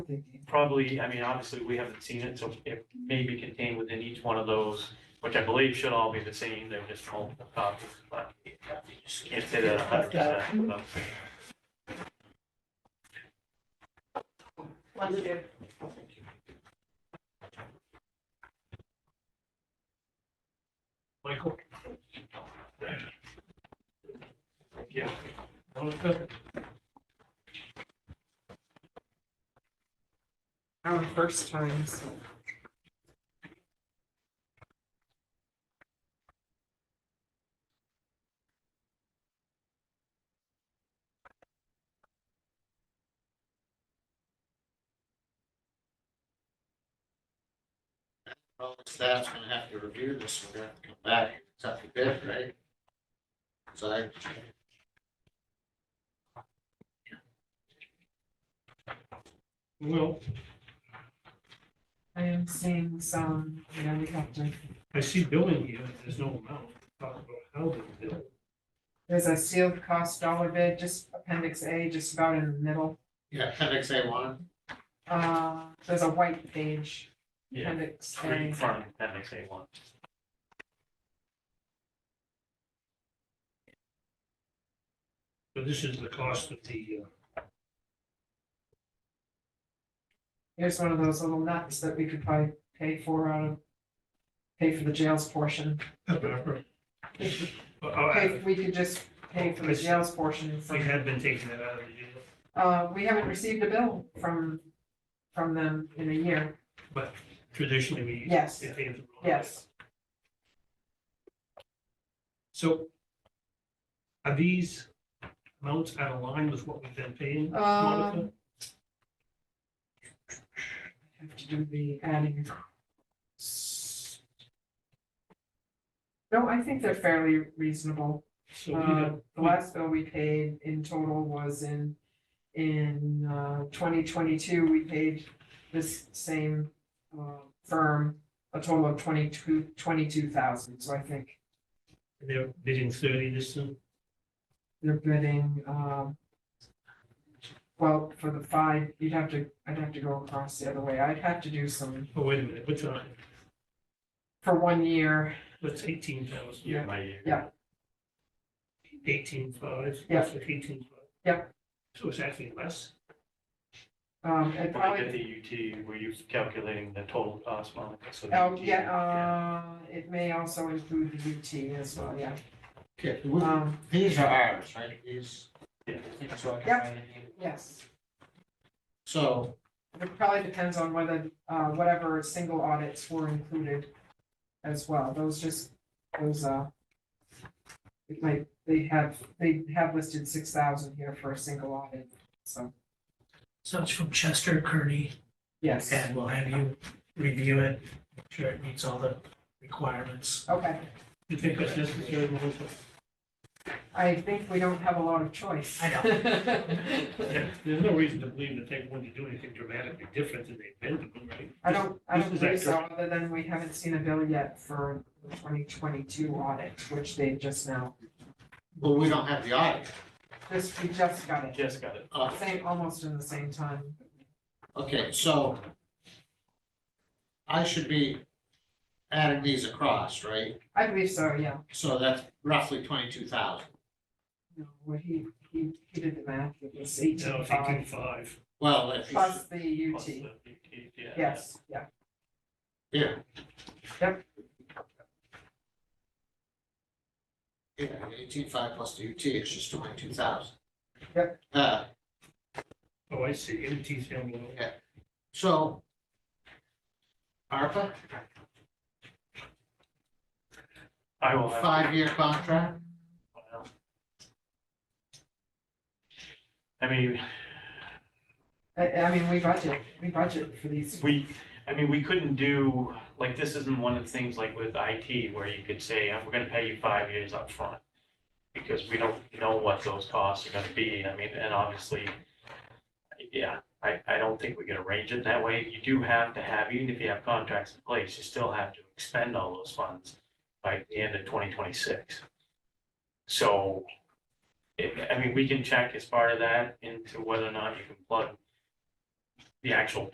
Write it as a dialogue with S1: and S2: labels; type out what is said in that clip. S1: probably, I mean, obviously, we haven't seen it, so it may be contained within each one of those, which I believe should all be the same, they're just multiple copies, but can't say that a hundred percent. but-
S2: Wonder.
S1: Michael? Yeah.
S3: Our first times.
S4: Well, the staff's gonna have to review this, we're gonna have to come back, it's up to bid, right? So I.
S5: Well,
S3: I am seeing some, you know, we have to,
S5: I see billing here, there's no amount, talk about how they bill.
S3: there's a sealed cost dollar bid, just appendix A, just about in the middle.
S4: Yeah, appendix A one,
S3: Uh, there's a white page,
S1: Yeah,
S3: appendix
S1: three in
S3: A.
S1: front, that makes eight one.
S5: So this is the cost of the, uh,
S3: Here's one of those little nuts that we could probably pay for out of, pay for the jails portion.
S5: pepper. Uh,
S3: Okay,
S5: I-
S3: we could just pay for the jails portion.
S5: We
S3: from-
S5: had been taking that out of the deal,
S3: Uh, we haven't received a bill from, from them in a year.
S5: but traditionally we.
S3: Yes,
S5: they pay us a lot.
S3: yes.
S5: So are these amounts out of line with what we've been paying? Monica?
S3: Um, Have to do the adding. No, I think they're fairly reasonable.
S5: So we
S3: Uh,
S5: have,
S3: the last bill we paid in total was in, in, uh, twenty twenty-two, we paid this same, uh, firm a total of twenty-two, twenty-two thousand, so I think
S5: they're bidding thirty this time.
S3: they're bidding, um. Well, for the five, you'd have to, I'd have to go across the other way, I'd have to do some,
S5: Oh, wait a minute, what's on,
S3: for one year,
S5: what's eighteen thousand?
S3: Yeah.
S1: By year.
S3: Yeah.
S5: Eighteen five.
S3: Yeah.
S5: Eighteen five.
S3: Yeah.
S5: So it's actually less.
S3: um, and
S1: When we
S3: probably.
S1: did the UT, were you calculating the total cost, Monica? So the
S3: Oh,
S1: UT
S3: yeah, uh, it may also include the UT as well, yeah,
S4: okay, we-
S3: um,
S4: these are ours, right, these?
S1: Yeah.
S3: Yep. yes.
S4: So,
S3: It probably depends on whether, uh, whatever single audits were included as well, those just, those, uh. It might, they have, they have listed six thousand here for a single audit, so,
S6: So it's from Chester Kearney,
S3: yes,
S6: and we'll have you review it, make sure it meets all the requirements.
S3: okay,
S5: You think that's necessary, Melissa?
S3: I think we don't have a lot of choice.
S6: I know.
S5: Yeah, There's no reason to believe that they want to do anything dramatically different than they've been doing, right?
S3: I don't, I don't
S5: This is
S3: believe so, other than we haven't seen a bill yet for the twenty twenty-two audit, which they just now,
S4: well, we don't have the audit,
S3: just, we just got it,
S1: Just got it.
S4: uh,
S3: same, almost in the same time.
S4: okay, so. I should be adding these across, right?
S3: I believe so, yeah.
S4: So that's roughly twenty-two thousand.
S3: No, well, he, he, he did the math, it was
S5: No,
S3: eighteen
S5: eighteen
S3: five
S5: five.
S4: Well, if you,
S3: plus the
S1: plus
S3: UT,
S1: the UT, yeah.
S3: yes, yeah.
S4: yeah.
S3: Yep.
S4: Yeah, eighteen-five plus the UT, it's just twenty-two thousand.
S3: Yep.
S4: Uh,
S5: Oh, I see, MT down below.
S4: So. ARPA,
S1: I will have.
S4: five-year contract,
S1: Wow. I mean,
S3: I, I mean, we budget, we budget for these,
S1: we, I mean, we couldn't do, like, this isn't one of the things like with IT where you could say, "Uh, we're gonna pay you five years up front Because we don't know what those costs are gonna be, I mean, and obviously, yeah, I, I don't think we can arrange it that way. You do have to have, even if you have contracts in place, you still have to expend all those funds by the end of twenty twenty-six. So, it- I mean, we can check as part of that into whether or not you can plug the actual